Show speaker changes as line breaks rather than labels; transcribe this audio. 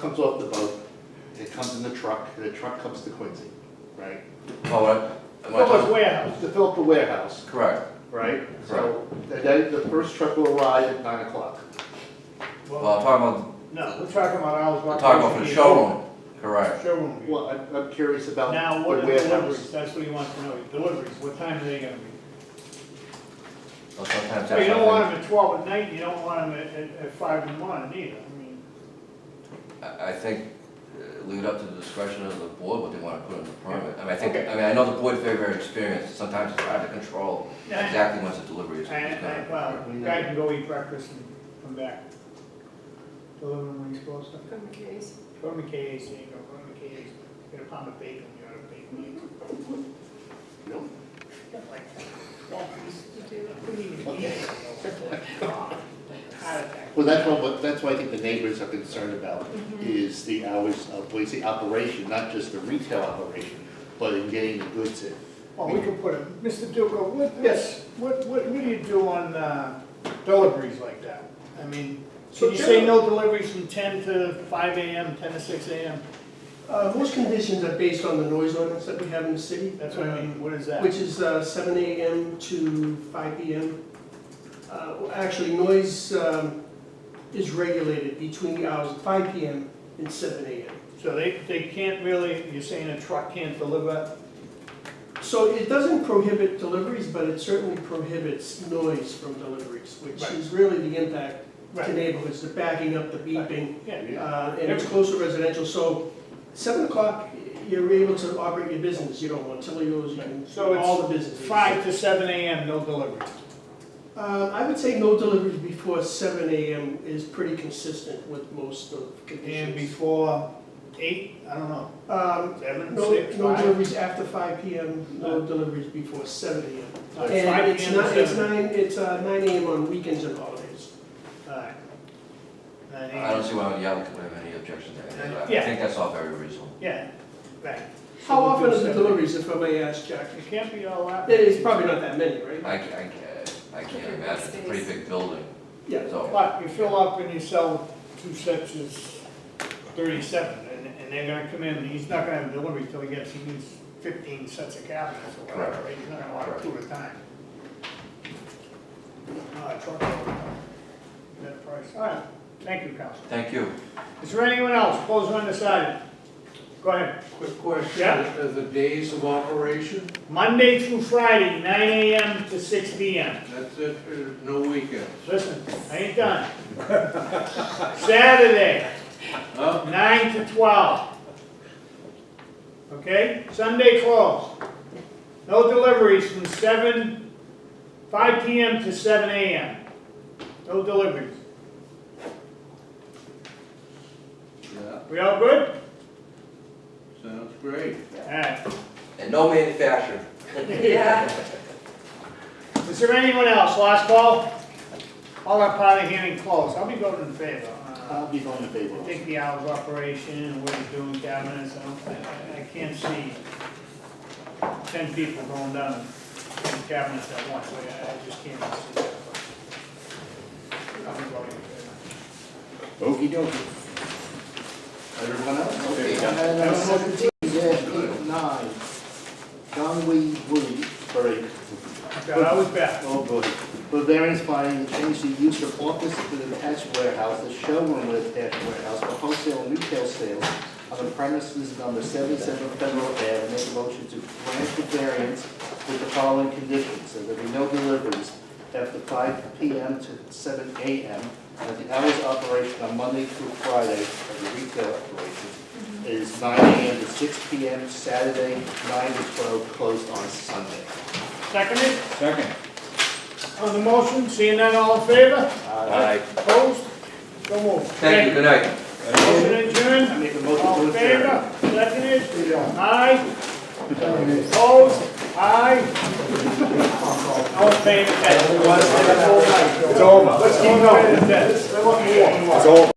comes off the boat, it comes in the truck, and the truck comes to Quincy, right?
Oh, what- am I
Well, it's
talking-
warehouse, to fill up the warehouse,
correct.
right? So, and then the first truck will arrive at nine o'clock.
Well, I'm talking about,
No, we're talking about hours. of
I'm talking about for
operation
the
being
showroom, correct.
open. Showroom. being
Well, I'm, I'm curious about
open. Now,
the
what are deliveries?
warehouse.
That's what he wants to know, deliveries, what time are they gonna be?
Well, sometimes
So
that's
you don't want
something,
them at twelve at night, you don't want them at, at, at five in the morning either, I mean,
I, I think, uh, leave it up to the discretion of the board what they wanna put in the permit. I mean, I think,
Okay.
I mean, I know the board's very, very experienced, sometimes it's hard to control
Yeah.
exactly when the delivery is. is
and, and,
done.
well, the guy can go eat breakfast and come back. Deliver them when he's supposed to.
From Case.
Go to McKay's, you go, go to McKay's, get a pound of bacon, you gotta bacon.
No?
Like, well,
You do.
we need to eat.
Okay.
Heart attack.
Well, that's what, what- that's what I think the neighbors are concerned about, is the hours of Quincy operation, not just the retail operation, but in getting the goods in.
Well, we could put a, Mr. Duco, what, yes, what, what, what do you do on, uh, deliveries like that? I mean,
So
can you say no deliveries from ten to five AM, ten to six AM?
Uh, Most conditions are based on the noise ordinance that we have in the city.
That's what I mean, what is
um,
that?
Which is uh, seven AM to five PM. Uh, well, Actually, noise um, is regulated between the hours of five PM and seven AM.
So they, they can't really, you're saying a truck can't deliver?
So it doesn't prohibit deliveries, but it certainly prohibits noise from deliveries, which
Right.
is really the impact to neighborhoods, the backing up, the beeping.
Yeah,
Uh, and it's close to residential, so seven o'clock, you're able to operate your business, you don't want Tilio's, you can,
So it's
all the businesses.
five to seven AM, no deliveries.
Uh, I would say no deliveries before seven AM is pretty consistent with most of
And
conditions.
before eight, I don't know,
Um,
seven,
no,
six,
no
five?
deliveries after five PM, no
No.
deliveries before seven AM.
Uh, it's five
And it's
PM to
nine, it's
seven.
nine, it's uh, nine AM on weekends and holidays.
Alright. Nine
I don't
AM,
see why the applicant would have any objection to any of that. I
Yeah.
think that's all very reasonable.
yeah, right.
How
we'll
often
do
are the
seven.
deliveries, if I may ask, Jack?
It can't be all that.
It's probably not that many, right?
I, ca- I, ca- I can't imagine, it's a pretty big building,
Yeah.
so.
But you fill up and you sell two sets is thirty-seven, and, and they're gonna come in, and he's not gonna have delivery till he gets, he needs fifteen sets of cabinets or whatever,
Correct.
right? he's not gonna want two at a time. Uh, truck load. Better price, all right, thank you, council.
Thank you.
Is there anyone else, opposed or undecided? Go ahead.
Quick question,
Yeah.
uh, the days of operation,
Monday through Friday, nine AM to six PM.
that's it, uh, no weekends?
Listen, I ain't done. Saturday,
Huh?
nine to twelve. Okay, Sunday closed. No deliveries from seven, five P M to seven A M. No deliveries.
Yeah,
We all good?
sounds great.
Alright.
And no manufacturing.
Yeah.
Is there anyone else? Last call? All our party hearing closed. I'll be voting in favor. Uh,
I'll be going to
I
Babel.
think the hours of operation and what he's doing cabinets, I don't, I, I can't see ten people going down and doing cabinets at once, Like, I, I just can't see that. I'm voting in favor.
Okey dokey. Everyone else? Okay.
Item
Item
seventeen.
seventeen, eight, nine. Conway Woody, sorry.
Okay, I was back.
Oh, boy. For variance finding, change the use of office to the attached warehouse, the showroom with attached warehouse for wholesale and retail sales on the premises number seventy-seven Federal Ave. Make a motion to grant the variance with the following conditions, that there be no deliveries after five P M. to seven A M. And the hours of operation on Monday through Friday of the retail operation is nine A M. to six P M. Saturday, nine to twelve, closed on Sunday.
Seconded? Second. On the motion, seeing none, all in favor?
Aye.
Opposed? So moved.
Thank you, good night.
Motion adjourned?
I make a motion to
All in
adjourn.
favor? Seconded? Aye? Opposed? Aye? All in favor? It's over. Let's keep going. It's over.